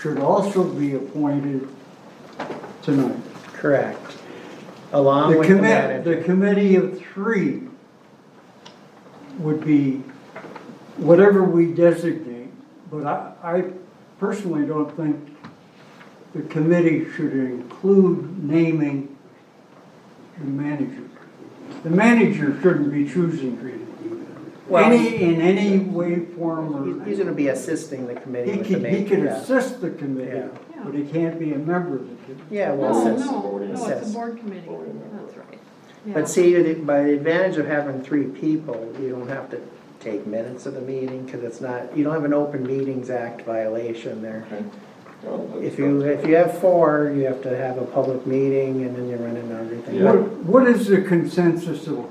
should also be appointed tonight. Correct. Along The with the commit, the manager. committee of three would be whatever we designate, but I, I personally don't think the committee should include naming the manager. The manager shouldn't be choosing Well, any, in any way, form, He's- or. He's gonna be assisting the committee He with the can, he can main, yeah. assist the committee, Yeah. but he can't be a member of the committee. Yeah, well, Oh, No, assist. no, no, it's Oh, Assess. a board committee, Voting member. that's right. Yeah. But see, the- by the advantage of having three people, you don't have to take minutes of the meeting, because it's not, you don't have an Open Meetings Act violation there. If you, if you have four, you have to have a public meeting, and then you run into everything. Yeah. What, what is the consensus of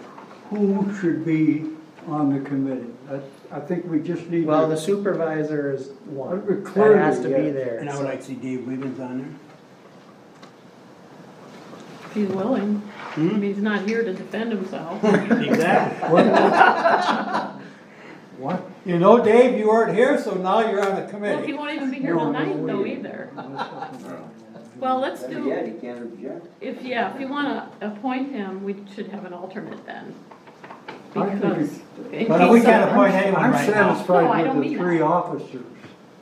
who should be on the committee? I, I think we just need Well, the to, supervisor is one, Uh, that has to clearly, be yeah. there. And I would like to see Dave Wiggins on there. If he's willing, I mean, he's not here to defend himself. Exactly. what? You know, Dave, you weren't here, so now you're on the Well, he committee. won't even be here No, tonight no, though we- either. Well, let's Yeah, do, you can't object. if, yeah, if you wanna appoint him, we should have an alternate then. I think Because. in But we case can't someone- appoint anyone I'm right now. No, I satisfied don't with the mean three that. officers.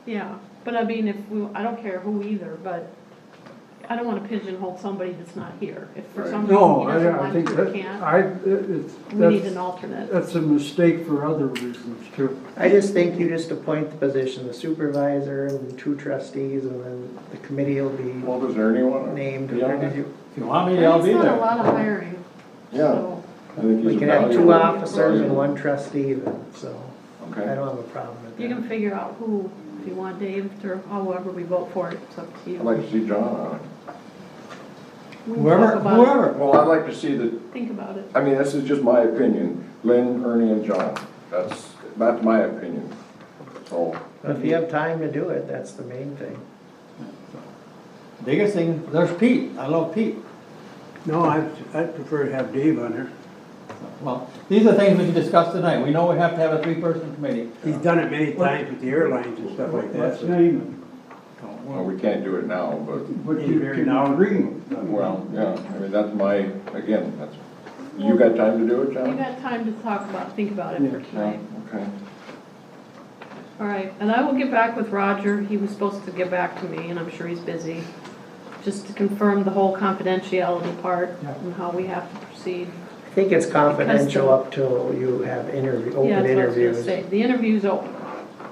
Yeah, but I mean, if we, I don't care who either, but I don't wanna pigeonhole somebody that's not here. If for some reason No, he doesn't I, I want think to, that, he can't, I, it's, we need an that's, alternate. that's a mistake for other reasons too. I just think you just appoint the position, the supervisor and two trustees, and then the committee will be Well, does there anyone? named. Yeah, I If you want me, I'll There's be not a there. lot of hiring, Yeah. so. think We he's can a have two valuable- officers and one trustee then, so I Okay. don't have a problem with You can that. figure out who, if you want Dave or however we vote for it, it's up to you. I'd like to see John on it. We can Whoever, talk about it. whoever. Well, I'd like to see the, Think about it. I mean, this is just my opinion, Lynn, Ernie, and John. That's, that's my opinion. So, But If you have time to do it, that's the main thing. Biggest thing, there's Pete. I love Pete. No, I, I'd prefer to have Dave on there. Well, these are things we can discuss tonight. We know we have to have a three-person committee. He's done it many times with the airlines and stuff like Let's that. name well, we can't do it now, but, it, but He's you very can knowledgeable. agree with them. well, yeah, I mean, that's my, again, that's, you got time to do it, We John? got time to talk about, think about it Yeah. for Yeah, tonight. okay. All right, and I will get back with Roger. He was supposed to get back to me, and I'm sure he's busy. Just to confirm the whole confidentiality part Yeah. and how we have to proceed. I think it's confidential up till you have interview, Yeah, open that's what I was gonna interviews. say. The interview's open.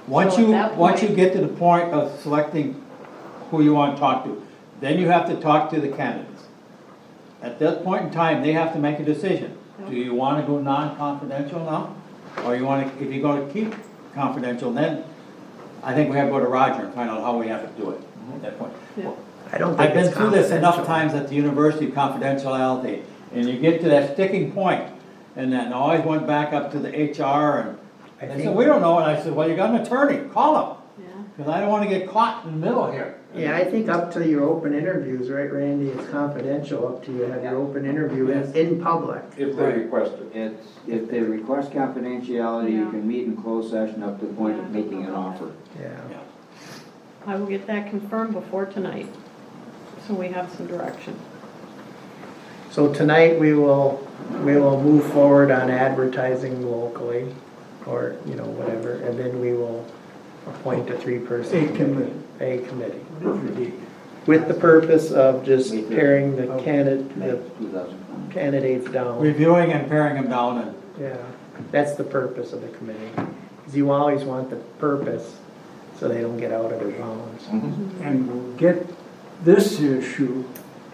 Once So at you, that once you point- get to the point of selecting who you want to talk to, then you have to talk to the candidates. At that point in time, they have to make a decision. Do you want to go non-confidential now? Or you want to, if you're going to keep confidential, then I think we have to go to Roger and find out how we have to do it at that point. Yeah. I don't think I've been it's through this enough confidential. times at the university, confidentiality, and you get to that sticking point, and then I always went back up to the HR I and they said, think- we don't know, and I said, well, you got an attorney, call him, Yeah. because I don't wanna get caught in the middle here. Yeah, I think up till your open interviews, right, Randy, it's confidential up till you have your open interview in, in public. If they request it. It's, if they request confidentiality, Yeah. you can meet in closed session up to the point of Yeah, I don't making an know. offer. Yeah. I will get that confirmed before tonight, so we have some direction. So tonight, we will, we will move forward on advertising locally, or, you know, whatever, and then we will appoint a A three-person committee. committee. A committee, Perfect. with the purpose of just paring the May candidate, two thousand twenty. the candidates down. Reviewing and paring them down and, Yeah, that's the purpose of the committee, because you always want the purpose, so they don't get out of their bounds. Mm-hmm. And we'll get this issue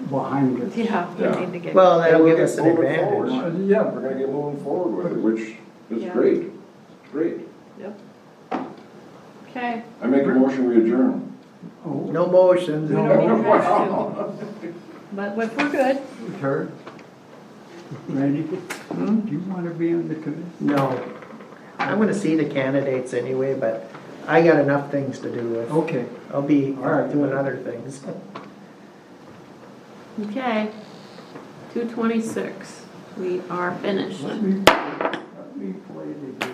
behind us. Yeah, Yeah. we need to get. Well, that'll give We're gonna us an move it forward. advantage. Yeah, We're gonna get moving forward with it, which is Yeah. great, It's great. Yep. Okay. I make a motion, we adjourn. oh, No motions. We don't need to rush Wow. to- But if we're good, Kurt? Randy, do you want to be on the committee? No. I'm gonna see the candidates anyway, but I got enough things to do with. Okay. I'll be All right. doing other things. okay. Two twenty-six, we are finished. Let me play the